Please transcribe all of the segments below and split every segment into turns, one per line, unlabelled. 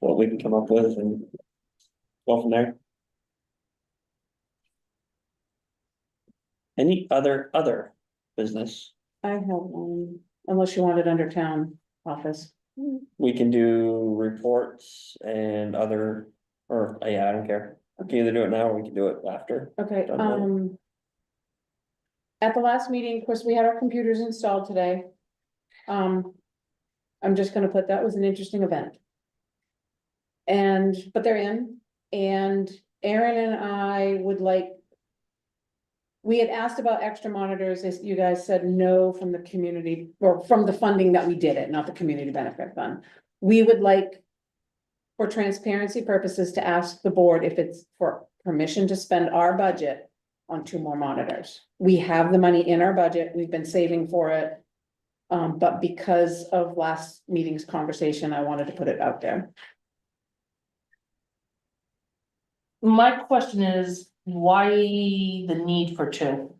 what we can come up with and go from there. Any other, other business?
I have, um, unless you want it under town office.
We can do reports and other, or, uh, yeah, I don't care. We can either do it now or we can do it after.
Okay,
Done that.
um. At the last meeting, of course, we had our computers installed today. Um, I'm just gonna put that was an interesting event. And, but they're in, and Aaron and I would like. We had asked about extra monitors, as you guys said no from the community, or from the funding that we did it, not the community benefit fund. We would like. For transparency purposes, to ask the board if it's for permission to spend our budget on two more monitors. We have the money in our budget, we've been saving for it. Um, but because of last meeting's conversation, I wanted to put it out there.
My question is, why the need for two?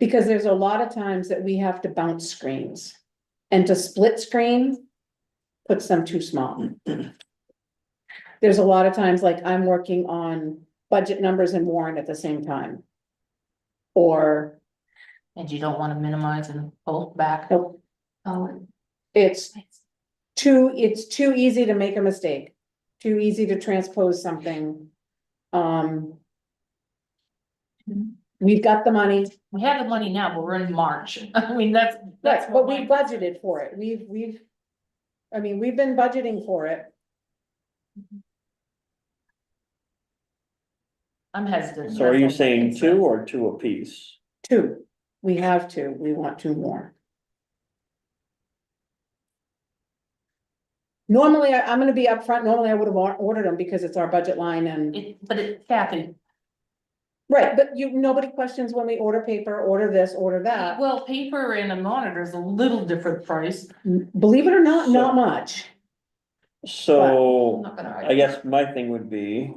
Because there's a lot of times that we have to bounce screens. And to split screen puts them too small. There's a lot of times, like I'm working on budget numbers and warrant at the same time. Or
And you don't wanna minimize and pull back?
Nope.
Oh.
it's too, it's too easy to make a mistake, too easy to transpose something. Um.
Mm-hmm.
We've got the money,
We have the money now, but we're in March. I mean, that's, that's.
but, but we
what my-
budgeted for it, we've, we've. I mean, we've been budgeting for it,
I'm hesitant.
So are you
That's all my
saying
concern.
two or two apiece?
two, we have two, we want two more. Normally, I, I'm gonna be upfront, normally I would have ordered them because it's our budget line and.
It, but it, Kathy,
Right, but you, nobody questions when we order paper, order this, order that.
well, paper and a monitor is a little different price.
Believe it or not,
So-
not much.
I'm
So
not gonna
I
argue.
guess my thing would be.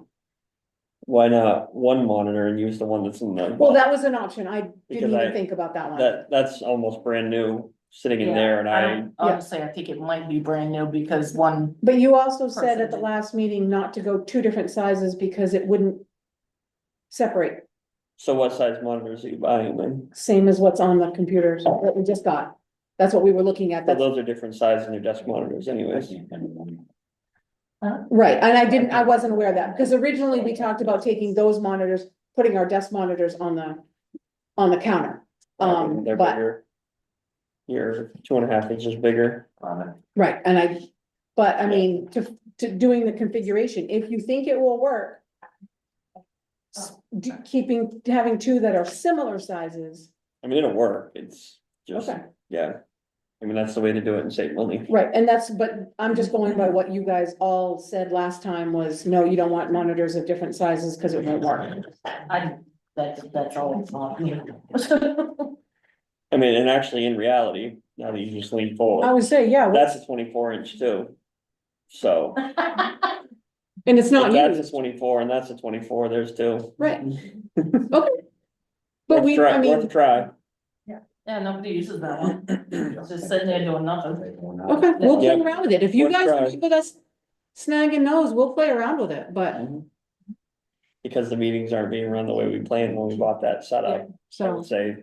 Why not one monitor and use the one that's in the?
Well, that was an option. I
Because
didn't
I-
even think about that one.
That, that's almost brand new, sitting in
Yeah,
there and I,
don't- Honestly, I think it might be brand new because one,
But you also said at the
Personally.
last meeting not to go two different sizes because it wouldn't separate,
so what size monitors are you buying then?
same as what's on the computers that we just got. That's what we were looking at.
Well,
That's
those are different size than your desk monitors anyways.
right. And I didn't, I wasn't aware of that because originally we talked about taking those monitors, putting our desk monitors on the, on the counter. Um,
They're
but,
bigger. You're two and a half inches bigger.
right. And I, but I
Yeah.
mean, to, to doing the configuration, if you think it will work, d- keeping, having two that are similar sizes.
I mean, it'll work, it's just,
Okay.
yeah. I mean, that's the way to do it and save money.
Right, and that's, but I'm just going by what you guys all said last time was, no, you don't want monitors of different sizes because it won't work.
I, that's, that's all it's on.
I mean, and actually, in reality, now that you just lean
I
forward,
would say, yeah, well,
that's a twenty-four inch too. So,
and it's
if
not
that's
you,
a twenty-four and that's a twenty-four, there's two.
right? Okay. But
Worth
we,
try-
I
Worth a
mean,
try.
Yeah, nobody uses that one. It's just sitting there doing nothing.
okay, we'll play
Yeah.
around with it. If you
Worth
guys
trying.
keep with us snagging those, we'll play around with it, but,
Because the meetings aren't being run the way we planned when we bought that setup, I
so,
would say.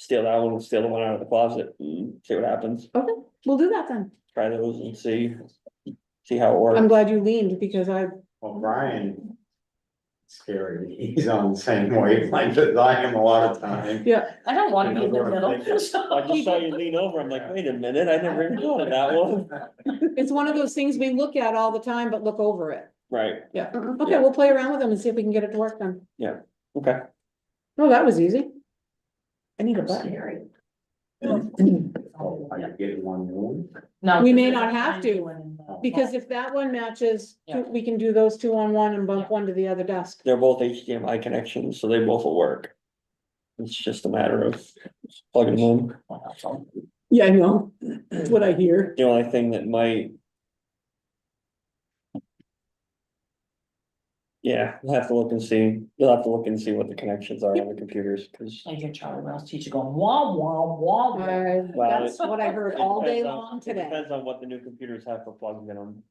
Steal that one, steal the one out of the closet, and see what happens,
okay, we'll do that then.
try those and see, see how it works.
I'm glad you leaned because I,
Well, Brian. Scary, he's on the same wavelength as I am a lot of time.
yeah,
I don't wanna be in the
I just saw you
middle.
lean over, I'm like, wait a minute, I never even thought of that one.
it's one of those things we look at all the time, but look over it.
Right,
Yeah,
Yeah.
okay, we'll play around with them and see if we can get it to work then.
okay.
No, that was easy. I need a button.
Scary.
Oh, I could get one room.
No,
We may
there's
not
a
have
time
to,
when, uh,
Because if that one matches,
Yeah.
we can do those two on one and bump one to the other desk.
They're both HDMI connections, so they both will work. It's just a matter of plugging them
Yeah, I know,
in.
what I hear.
The only thing that might. Yeah, we'll have to look and see, you'll have to look and see what the connections are on the computers, cause.
I hear Charlie Brown's teacher going, wah, wah, wah, wah.
that's what I heard all day long
It
today.
Depends on what the new computers have for plugging in them.